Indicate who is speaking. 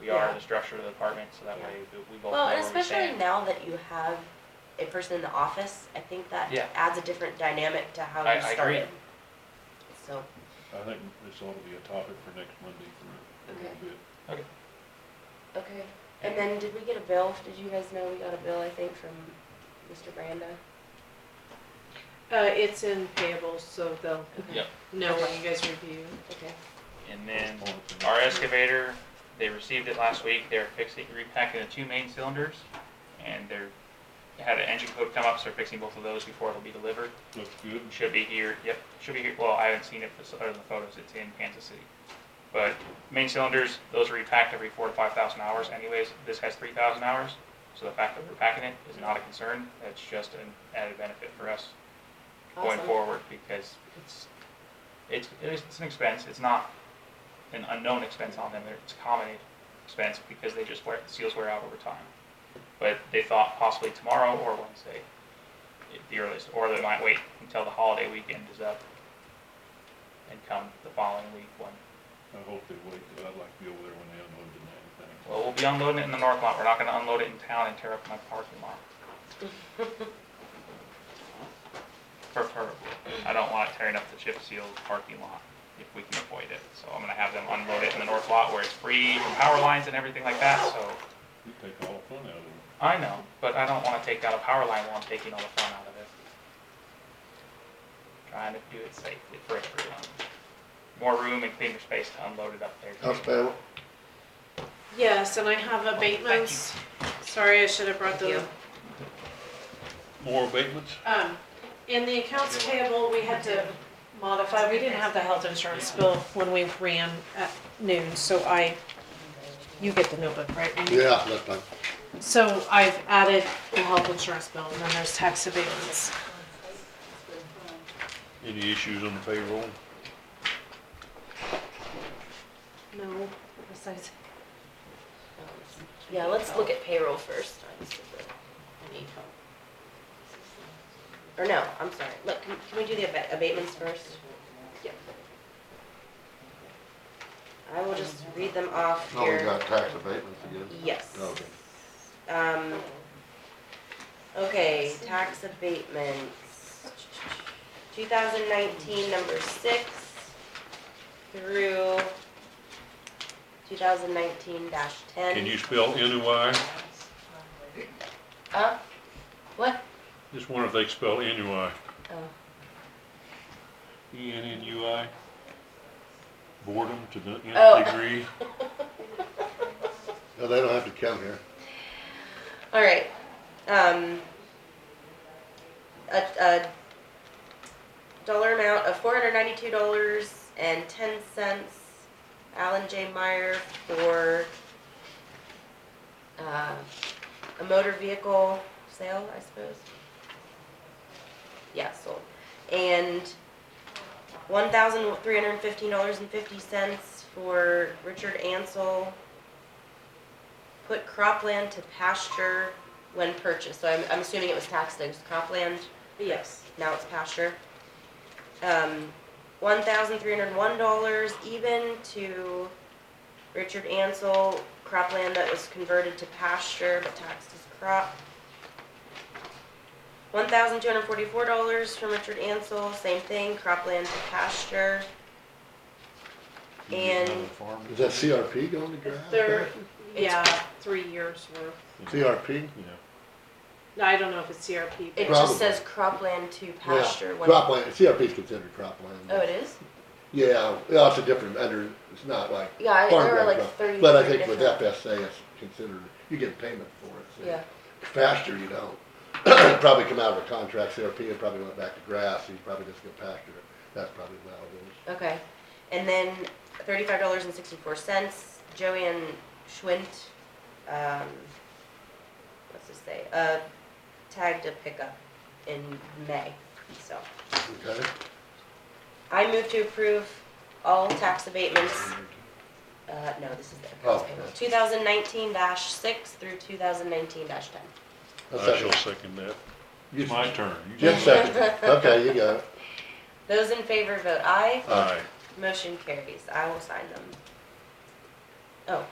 Speaker 1: we are,
Speaker 2: Yeah.
Speaker 1: the structure of the department, so that way we- we both know
Speaker 2: Well,
Speaker 1: where
Speaker 2: and
Speaker 1: we stand.
Speaker 2: especially now that you have a person in the office, I think that
Speaker 1: Yeah.
Speaker 2: adds a different dynamic to how
Speaker 1: I-
Speaker 2: you
Speaker 1: I agree.
Speaker 2: started. So,
Speaker 3: I think this ought to be a topic for next Monday for a little
Speaker 2: Okay.
Speaker 3: bit.
Speaker 2: okay, and then did we get a bill? Did you guys know we got a bill, I think, from Mr. Branda?
Speaker 4: Uh, it's in payables, so they'll
Speaker 1: Yep.
Speaker 4: know when you guys review.
Speaker 2: Okay,
Speaker 1: And then
Speaker 3: Postpone it for next
Speaker 1: our
Speaker 3: year.
Speaker 1: excavator, they received it last week, they're fixing, repacking the two main cylinders, and they're, had an engine code come up, so they're fixing both of those before it'll be delivered.
Speaker 3: Looks good.
Speaker 1: Should be here, yep, should be here, well, I haven't seen it, but other than the photos, it's in Kansas City. But main cylinders, those are repacked every four to five thousand hours anyways, this has three thousand hours, so the fact that we're packing it is not a concern, that's just an added benefit for us going
Speaker 2: awesome.
Speaker 1: forward, because it's, it's, it is- it's an expense, it's not an unknown expense on them, They're- it's a common expense, because they just wear, seals wear out over time. But they thought possibly tomorrow or Wednesday, at the earliest, or they might wait until the holiday weekend is up and come the following week when,
Speaker 3: I hope they wait, 'cause I'd like to be over there when they unload and everything.
Speaker 1: well, we'll be unloading it in the north lot, we're not gonna unload it in town and tear up my parking lot. Preferably, I don't want it tearing up the chip seal parking lot if we can avoid it, so I'm gonna have them unload it in the north lot where it's free from power lines and everything like that, so.
Speaker 3: You take all the fun out of it.
Speaker 1: I know, but I don't wanna take out a power line while I'm taking all the fun out of it. Trying to do it safely for everyone. More room and cleaner space to unload it up there.
Speaker 5: House bill,
Speaker 4: Yes, and I have abatements. Sorry, I should have brought
Speaker 2: Thank
Speaker 4: those.
Speaker 2: you.
Speaker 3: More abatements?
Speaker 4: Um, in the accounts payable, we had to modify, we didn't have the health insurance bill when we ran at noon, so I, you get the notebook, right? Randy?
Speaker 5: yeah, that's fine.
Speaker 4: So I've added the health insurance bill, and then there's tax abatements.
Speaker 3: Any issues on the payroll?
Speaker 4: No, besides,
Speaker 2: Yeah, let's look at payroll first. I just- I need help. Or no, I'm sorry, look, can can we do the abate- abatements first? Yep. I will just read them off
Speaker 5: No, Oh, we
Speaker 2: here.
Speaker 5: got tax abatements again.
Speaker 2: Yes.
Speaker 5: Okay.
Speaker 2: Um, okay, tax abatements. Two thousand nineteen, number six through two thousand nineteen dash ten.
Speaker 3: Can you spell NUI?
Speaker 2: Uh, what?
Speaker 3: Just wonder if they can spell NUI.
Speaker 2: Oh.
Speaker 3: E N N U I? Boredom to the
Speaker 2: Oh.
Speaker 3: nth degree?
Speaker 5: No, they don't have to come here.
Speaker 2: All right. Um, a, a dollar amount of four hundred ninety-two dollars and ten cents. Alan J. Meyer for uh, a motor vehicle sale, I suppose. Yeah, sold. And one thousand three hundred fifteen dollars and fifty cents for Richard Ansel put cropland to pasture when purchased, so I'm, I'm assuming it was taxed as cropland,
Speaker 4: yes.
Speaker 2: now it's pasture. Um, one thousand three hundred one dollars even to Richard Ansel, cropland that was converted to pasture but taxed as crop. One thousand two hundred forty-four dollars from Richard Ansel, same thing, cropland to pasture. And-
Speaker 5: Is that CRP going to ground?
Speaker 4: They're, yeah, three years worth.
Speaker 5: CRP?
Speaker 3: Yeah.
Speaker 4: No, I don't know if it's CRP,
Speaker 2: it
Speaker 4: but
Speaker 5: Probably.
Speaker 2: just says cropland to
Speaker 5: Yeah.
Speaker 2: pasture when.
Speaker 5: Cropland, CRP is considered cropland.
Speaker 2: Oh, it is?
Speaker 5: Yeah, yeah, it's a different, under, it's not like
Speaker 2: Yeah, I- there are
Speaker 5: farmland
Speaker 2: like
Speaker 5: crop.
Speaker 2: 33
Speaker 5: But I think with
Speaker 2: different-
Speaker 5: FSA, it's considered, you get payment for it. so
Speaker 2: Yeah,
Speaker 5: Pasture, you don't. It'd Probably come out of a contract, CRP, it probably went back to grass, so you probably just get pasture. That's probably how it is.
Speaker 2: okay. And then thirty-five dollars and sixty-four cents, Joanne Schwint, um, what's this say, uh, tagged a pickup in May, so.
Speaker 5: Okay?
Speaker 2: I move to approve all tax abatements, uh, no, this is the accounts
Speaker 5: Oh,
Speaker 2: payable,
Speaker 5: yeah.
Speaker 2: two thousand nineteen dash six through two thousand nineteen dash ten.
Speaker 5: I'll
Speaker 3: I
Speaker 5: second.
Speaker 3: shall second that.
Speaker 5: You-
Speaker 3: It's my turn. You
Speaker 5: Jim
Speaker 3: just-
Speaker 5: seconded. Okay, you got it.
Speaker 2: Those in favor vote aye.
Speaker 3: Aye.
Speaker 2: Motion carries. I will sign them. Oh,